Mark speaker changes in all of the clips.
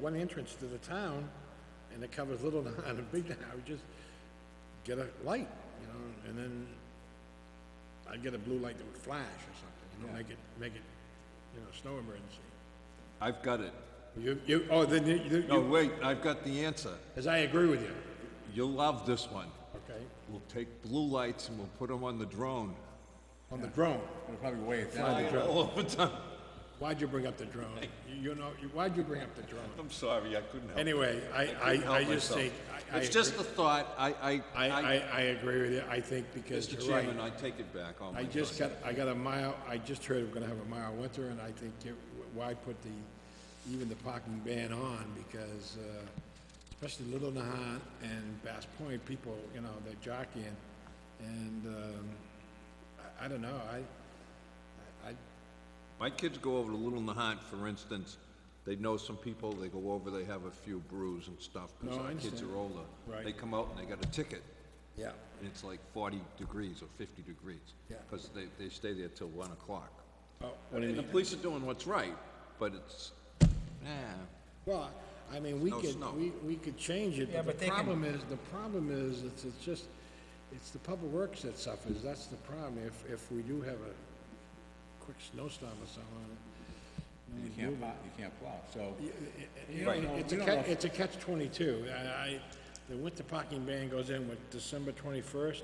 Speaker 1: one entrance to the town, and it covers Little Nahat and Big Nahat, we just get a light, you know, and then I'd get a blue light that would flash or something, you know, make it, make it, you know, snow emergency.
Speaker 2: I've got it.
Speaker 1: You, you, oh, then you, you-
Speaker 2: No,
Speaker 1: you,
Speaker 2: wait, I've got the answer.
Speaker 1: as I agree with you,
Speaker 2: You'll love this one.
Speaker 1: okay,
Speaker 2: We'll take blue lights and we'll put them on the drone.
Speaker 1: on the drone.
Speaker 3: It'll probably weigh it down.
Speaker 2: All over time.
Speaker 1: Why'd you bring up the drone? You- You know, you- why'd you bring up the drone?
Speaker 2: I'm sorry, I couldn't help.
Speaker 1: Anyway, I, I, I just think, I, I,
Speaker 2: It's just a thought. I,
Speaker 1: agree- I,
Speaker 2: I,
Speaker 1: I, I agree with you, I think because
Speaker 2: Mr.
Speaker 1: you're right.
Speaker 2: Chairman, I take it back. Oh, my
Speaker 1: I just
Speaker 2: God.
Speaker 1: got, I got a mile, I just heard we're gonna have a mild winter, and I think, it- why put the, even the parking ban on, because, uh, especially Little Nahat and Bass Point, people, you know, they're jockeying, and, um, I, I don't know, I, I,
Speaker 2: My kids go over to Little Nahat, for instance. They know some people, they go over, they have a few brews and stuff, because
Speaker 1: No, I
Speaker 2: our kids
Speaker 1: understand.
Speaker 2: are older.
Speaker 1: Right.
Speaker 2: They come out and they got a ticket,
Speaker 1: yeah,
Speaker 2: and it's like forty degrees or fifty degrees.
Speaker 1: Yeah.
Speaker 2: Because they, they stay there till one o'clock.
Speaker 1: oh, what do you
Speaker 2: And the
Speaker 1: mean?
Speaker 2: police are doing what's right, but it's, nah,
Speaker 1: Well, I mean, we
Speaker 2: No
Speaker 1: could,
Speaker 2: snow.
Speaker 1: we, we could change it,
Speaker 4: Yeah,
Speaker 1: but
Speaker 4: but
Speaker 1: the
Speaker 4: they can-
Speaker 1: problem is, the problem is, it's, it's just, it's the public works that suffers, that's the problem, if, if we do have a quick snowstorm or something.
Speaker 3: You can't plow, you can't plow, so.
Speaker 1: You
Speaker 3: Right.
Speaker 1: know, it's a
Speaker 3: We don't
Speaker 1: catch,
Speaker 3: know if-
Speaker 1: it's a catch twenty-two, I, I, the winter parking ban goes in with December twenty-first,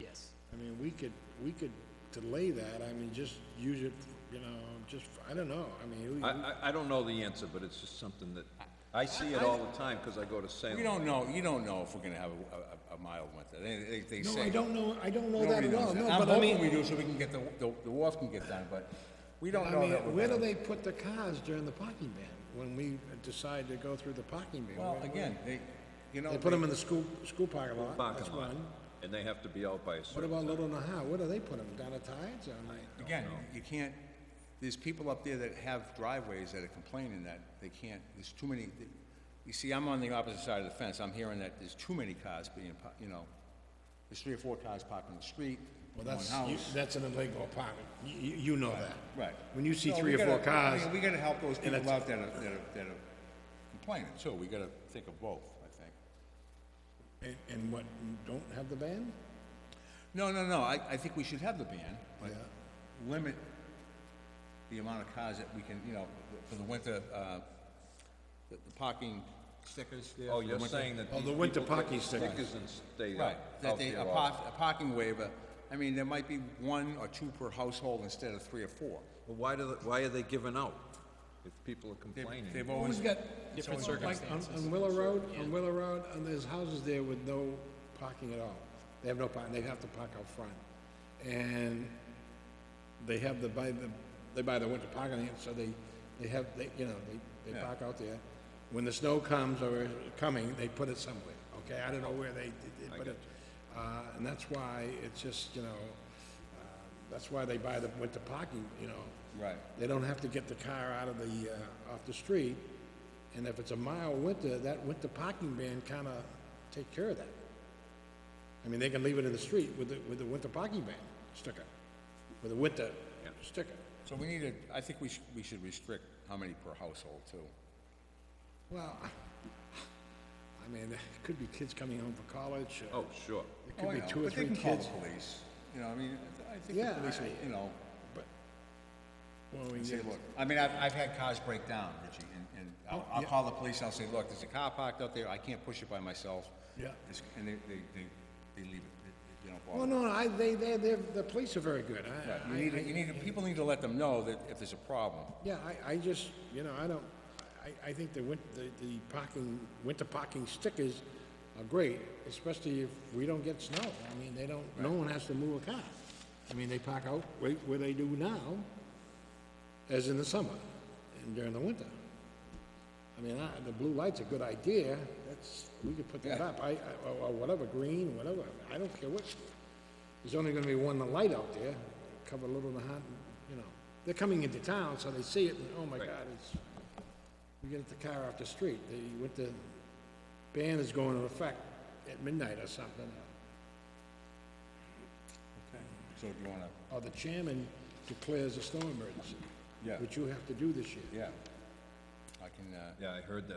Speaker 4: Yes.
Speaker 1: I mean, we could, we could delay that, I mean, just use it, you know, just, I don't know, I mean,
Speaker 2: I,
Speaker 1: we-
Speaker 2: I, I don't know the answer, but it's just something that, I see it all the time, because I go to
Speaker 3: We
Speaker 2: Salem.
Speaker 3: don't know, you don't know if we're gonna have a, a, a mild winter. They, they, they
Speaker 1: no,
Speaker 3: say.
Speaker 1: I don't know, I don't know that
Speaker 3: Nobody
Speaker 1: at all,
Speaker 3: knows
Speaker 1: no,
Speaker 3: that. I'm
Speaker 1: but I mean.
Speaker 3: hoping we do so we can get the, the, the wharf can get done, but we don't
Speaker 1: I
Speaker 3: know
Speaker 1: mean,
Speaker 3: that we're
Speaker 1: where do
Speaker 3: gonna.
Speaker 1: they put the cars during the parking ban, when we decide to go through the parking ban?
Speaker 3: Well,
Speaker 1: Where-
Speaker 3: again, they, you know.
Speaker 1: They put them in the school, school parking lot, that's
Speaker 2: Parking lot,
Speaker 1: one.
Speaker 2: and they have to be out by a
Speaker 1: What
Speaker 2: certain,
Speaker 1: about Little Nahat, where do they put them, down at Tides, or like,
Speaker 3: Again, you can't, there's people up there that have driveways that are complaining that they can't, there's too many, you see, I'm on the opposite side of the fence, I'm hearing that there's too many cars being, par- you know, there's three or four cars parked on the street,
Speaker 1: well,
Speaker 3: one
Speaker 1: that's, you-
Speaker 3: house.
Speaker 1: that's an illegal apartment, you, you- you know that.
Speaker 3: Right.
Speaker 1: When you see
Speaker 3: So
Speaker 1: three
Speaker 3: we
Speaker 1: or four
Speaker 3: gotta- I
Speaker 1: cars,
Speaker 3: mean, We gotta help those people
Speaker 1: it's-
Speaker 3: out that are, that are, that are complaining too, we gotta think of both, I think.
Speaker 1: and, and what, don't have the ban?
Speaker 3: No, no, no, I, I think we should have the ban, but
Speaker 1: Yeah.
Speaker 3: limit the amount of cars that we can, you know, for the winter, uh, the the parking stickers there.
Speaker 2: oh,
Speaker 3: for the
Speaker 2: you're
Speaker 3: winter-
Speaker 2: saying that
Speaker 1: Oh,
Speaker 2: these
Speaker 1: the winter
Speaker 2: people take
Speaker 1: parking stickers.
Speaker 2: and stay out
Speaker 3: Right, that
Speaker 2: out
Speaker 3: they,
Speaker 2: there
Speaker 3: a
Speaker 2: all-
Speaker 3: park, a parking waiver, I mean, there might be one or two per household instead of three or four.
Speaker 2: Well, why do, they- why are they giving out if people are
Speaker 3: They've-
Speaker 2: complaining?
Speaker 3: They've always,
Speaker 1: got?
Speaker 4: Different
Speaker 1: Like, on, on Willow Road, on Willow Road, and there's houses there with no parking at all. They have no parking, they have to park out front. And they have the, buy the, they buy the winter parking, and so they, they have, they, you know, they, they
Speaker 3: Yeah.
Speaker 1: park out there. When the snow comes or is coming, they put it somewhere, okay? I don't know where they, they- they put it. Uh, and that's why it's just, you know, uh, that's why they buy the winter parking, you know?
Speaker 3: right,
Speaker 1: They don't have to get the car out of the, uh, off the street, and if it's a mild winter, that winter parking ban kinda take care of that. I mean, they can leave it in the street with the, with the winter parking ban sticker, with a winter sticker.
Speaker 3: so we need to, I think we should, we should restrict how many per household too.
Speaker 1: Well, I mean, it could be kids coming home from college, uh,
Speaker 2: Oh, sure.
Speaker 1: it
Speaker 3: Oh, I
Speaker 1: could be
Speaker 3: know,
Speaker 1: two or
Speaker 3: but they
Speaker 1: three
Speaker 3: can call the
Speaker 1: kids,
Speaker 3: police, you know, I mean, I think
Speaker 1: Yeah,
Speaker 3: the police,
Speaker 1: I-
Speaker 3: will, you know,
Speaker 1: but, well, we
Speaker 3: say,
Speaker 1: get,
Speaker 3: look, I mean, I've, I've had cars break down, Richie, and, and I'll, I'll
Speaker 1: Oh, yeah.
Speaker 3: call the police, I'll say, look, there's a car parked out there, I can't push it by myself.
Speaker 1: Yeah.
Speaker 3: It's- And they, they, they, they leave it, They- they don't bother.
Speaker 1: well, no, I, they, they, they're, the police are very good,
Speaker 3: Right,
Speaker 1: I,
Speaker 3: You need, to- you need, to- people need to let them know that if there's a problem.
Speaker 1: Yeah, I, I just, you know, I don't, I, I think the win, the, the parking, winter parking stickers are great, especially if we don't get snow. I mean, they don't, no one has to move a car. I mean, they park out right where they do now, as in the summer and during the winter. I mean, I, the blue light's a good idea, that's, we could put that up, I, I, or- or whatever, green, whatever, I don't care what. There's only gonna be one light out there, cover Little Nahat, you know, they're coming into town, so they see it, and, oh my God, it's, we get the car off the street, they, with the ban is going into effect at midnight or something.
Speaker 3: So do you wanna,
Speaker 1: Or the chairman declares a snow emergency.
Speaker 3: Yeah.
Speaker 1: Which you have to do this year.
Speaker 3: yeah. I can, uh.
Speaker 2: Yeah, I heard that.